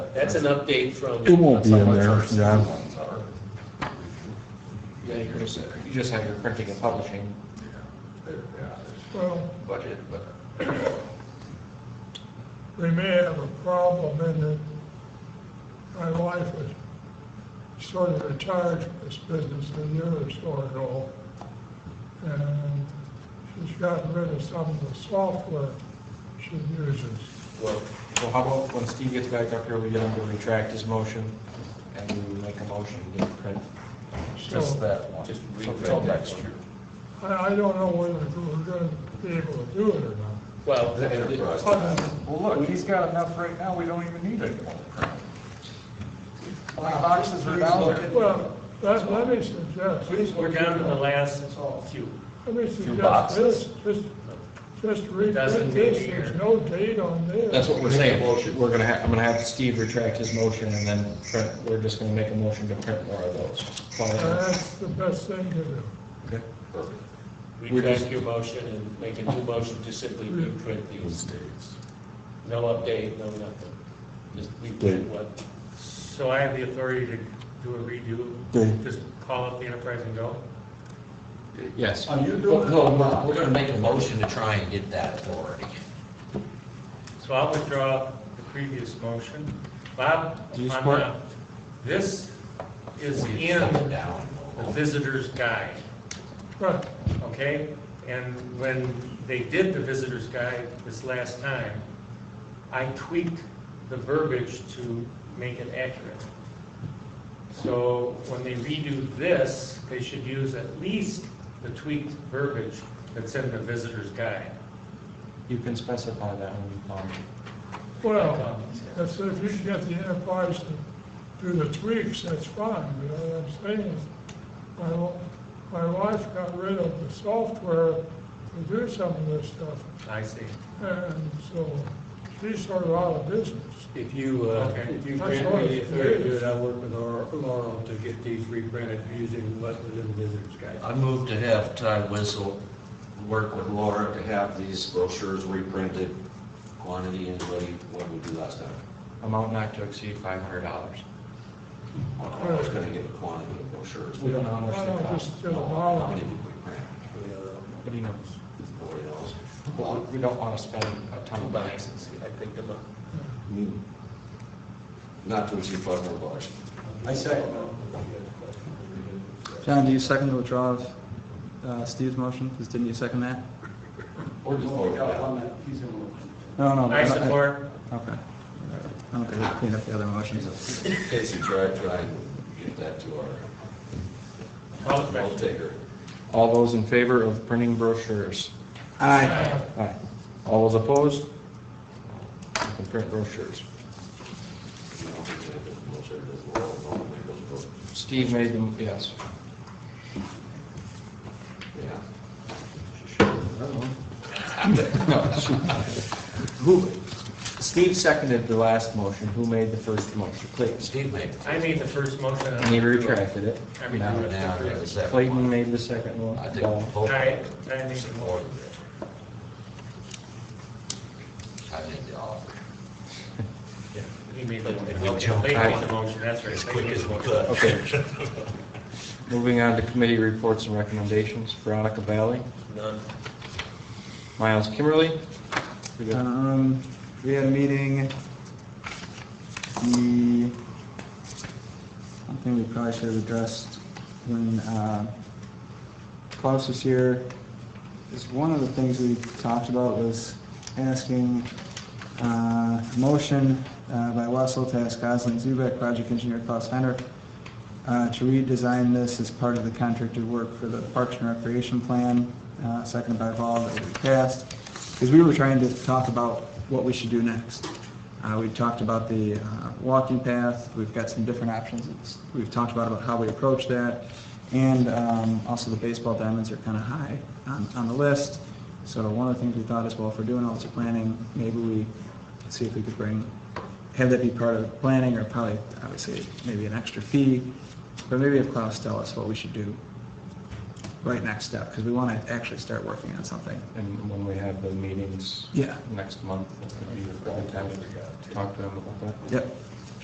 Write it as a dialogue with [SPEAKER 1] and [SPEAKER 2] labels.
[SPEAKER 1] That's an update from.
[SPEAKER 2] It won't be in there,
[SPEAKER 3] That's how much our
[SPEAKER 2] yeah.
[SPEAKER 3] school ones are.
[SPEAKER 1] Yeah, you're
[SPEAKER 3] They're-
[SPEAKER 1] just-
[SPEAKER 4] You just have your printing and publishing
[SPEAKER 3] yeah, there's, well,
[SPEAKER 4] budget, but
[SPEAKER 5] we may have a problem in that my wife is sort of retired from this business a year or so ago. And she's gotten rid of some of the software she uses.
[SPEAKER 4] well, so how about when Steve gets back up here, we get him to retract his motion and we make a motion to print.
[SPEAKER 3] just
[SPEAKER 5] So
[SPEAKER 3] that one.
[SPEAKER 1] Just
[SPEAKER 3] So
[SPEAKER 1] reprint
[SPEAKER 3] Till
[SPEAKER 1] that
[SPEAKER 3] next
[SPEAKER 1] one.
[SPEAKER 3] year.
[SPEAKER 5] I, I don't know whether we're gonna be able to do it or not.
[SPEAKER 1] Well,
[SPEAKER 3] The enterprise.
[SPEAKER 5] Other than
[SPEAKER 3] Well, look, he's got enough right now, we don't even need any more. How many boxes are down there?
[SPEAKER 5] Well, let, let me suggest,
[SPEAKER 1] we're down to the last few.
[SPEAKER 5] let me suggest
[SPEAKER 3] boxes.
[SPEAKER 5] this, just, just read
[SPEAKER 1] Doesn't
[SPEAKER 5] this,
[SPEAKER 1] appear.
[SPEAKER 5] there's no date on this.
[SPEAKER 4] That's what we're saying, we're gonna have, I'm gonna have Steve retract his motion and then print, we're just gonna make a motion to print more of those. Follow
[SPEAKER 5] And
[SPEAKER 4] that?
[SPEAKER 5] that's the best thing to do.
[SPEAKER 4] Okay.
[SPEAKER 3] Perfect.
[SPEAKER 4] We're just-
[SPEAKER 1] Retract your motion and make a new motion to simply reprint these.
[SPEAKER 3] States.
[SPEAKER 1] No update, no nothing. Just reprint what,
[SPEAKER 6] So I have the authority to do a redo,
[SPEAKER 2] Okay.
[SPEAKER 6] just call up the enterprise and go?
[SPEAKER 4] Yes.
[SPEAKER 3] Are you doing
[SPEAKER 4] Well,
[SPEAKER 3] it?
[SPEAKER 4] no, we're-
[SPEAKER 7] We're gonna make a motion to try and get that authority.
[SPEAKER 6] So I'll withdraw the previous motion. Bob?
[SPEAKER 4] Do you
[SPEAKER 6] I'm
[SPEAKER 4] support?
[SPEAKER 6] gonna- This is
[SPEAKER 7] We
[SPEAKER 6] in
[SPEAKER 7] shut it
[SPEAKER 6] the
[SPEAKER 7] down.
[SPEAKER 4] Oh,
[SPEAKER 6] visitor's guide,
[SPEAKER 5] Right.
[SPEAKER 6] okay? And when they did the visitor's guide this last time, I tweaked the verbiage to make it accurate. So when they redo this, they should use at least the tweaked verbiage that's in the visitor's guide.
[SPEAKER 4] You can specify that um, when you come.
[SPEAKER 5] Well, that's, if you can get the enterprise to do the tweaks, that's fine, you know what I'm saying? is, My, wa- my wife got rid of the software to do some of this stuff,
[SPEAKER 6] I see.
[SPEAKER 5] and so she's sort of out of business.
[SPEAKER 8] If you, uh,
[SPEAKER 6] Okay.
[SPEAKER 8] if you
[SPEAKER 5] That's
[SPEAKER 8] grant
[SPEAKER 5] all
[SPEAKER 8] me the
[SPEAKER 5] it
[SPEAKER 8] authority to do
[SPEAKER 5] is.
[SPEAKER 8] it, I'll work with Laurel- Laurel to get these reprinted using what was in the visitor's guide.
[SPEAKER 7] I move to have Ty Whistle work with Laura to have these brochures reprinted, quantity and what he, what we do last time.
[SPEAKER 4] Amount not to exceed five hundred dollars.
[SPEAKER 7] I don't know who's gonna get the quantity of brochures.
[SPEAKER 4] We don't know how
[SPEAKER 5] I
[SPEAKER 4] much
[SPEAKER 5] don't
[SPEAKER 4] they cost.
[SPEAKER 5] just, just
[SPEAKER 7] How
[SPEAKER 5] allow
[SPEAKER 7] many
[SPEAKER 5] it.
[SPEAKER 7] did we print?
[SPEAKER 4] Nobody knows.
[SPEAKER 7] Nobody knows.
[SPEAKER 4] Well, we- we don't wanna spend a ton
[SPEAKER 1] two
[SPEAKER 4] of money.
[SPEAKER 1] boxes, I think, a month.
[SPEAKER 7] Hmm. Not to exceed five hundred bucks.
[SPEAKER 8] I second that.
[SPEAKER 9] John, do you second the withdrawal of uh, Steve's motion? Because didn't you second that?
[SPEAKER 7] Or just vote it down.
[SPEAKER 9] No, no.
[SPEAKER 6] I
[SPEAKER 9] but
[SPEAKER 6] support.
[SPEAKER 9] Okay. I don't think we cleaned up the other motions.
[SPEAKER 7] In case you try, try and get that to
[SPEAKER 6] All
[SPEAKER 7] our
[SPEAKER 6] in favor?
[SPEAKER 7] vote taker.
[SPEAKER 4] All those in favor of printing brochures?
[SPEAKER 9] Aye.
[SPEAKER 4] Aye. All those opposed? You can print brochures.
[SPEAKER 7] You know, if it doesn't vote, it doesn't vote, no one goes vote.
[SPEAKER 4] Steve made them, yes.
[SPEAKER 7] Yeah.
[SPEAKER 4] No. Who, Steve seconded the last motion, who made the first motion, please?
[SPEAKER 7] Steve made.
[SPEAKER 6] I made the first motion.
[SPEAKER 4] And he retracted it.
[SPEAKER 6] I mean,
[SPEAKER 4] Now,
[SPEAKER 7] Now, the second
[SPEAKER 4] Clayton
[SPEAKER 7] one.
[SPEAKER 4] made the second one.
[SPEAKER 7] I think both of
[SPEAKER 6] I,
[SPEAKER 7] them
[SPEAKER 6] I made the motion.
[SPEAKER 7] supported it. I made the offer.
[SPEAKER 6] He made the motion.
[SPEAKER 7] We jumped
[SPEAKER 6] They made
[SPEAKER 7] on
[SPEAKER 6] the
[SPEAKER 7] it
[SPEAKER 6] motion, that's right.
[SPEAKER 7] As
[SPEAKER 6] They
[SPEAKER 7] quick
[SPEAKER 6] made
[SPEAKER 7] as
[SPEAKER 6] the
[SPEAKER 7] we
[SPEAKER 6] motion.
[SPEAKER 7] could.
[SPEAKER 4] Okay. Moving on to committee reports and recommendations, Veronica Valley,
[SPEAKER 1] none.
[SPEAKER 4] Miles Kimmerly. We got-
[SPEAKER 9] Um, we had a meeting, the, something we probably should have addressed when, uh, Klaus was here, is one of the things we talked about was asking, uh, motion, uh, by Wessel to ask Gosling Zubek, project engineer Klaus Hendrick, uh, to redesign this as part of the contracted work for the Parks and Recreation Plan, uh, seconded by Vol that we passed, because we were trying to talk about what we should do next. Uh, We talked about the uh, walking path, we've got some different options, It's- we've talked about about how we approach that, and um, also the baseball diamonds are kind of high on on the list, so one of the things we thought is, well, if we're doing all this planning, maybe we see if we could bring, have that be part of the planning, or probably, obviously, maybe an extra fee, but maybe if Klaus tell us what we should do right next step, because we want to actually start working on something.
[SPEAKER 4] And when we have the meetings
[SPEAKER 9] Yeah.
[SPEAKER 4] next month, it could be a good time to talk to them about that.
[SPEAKER 9] Yep.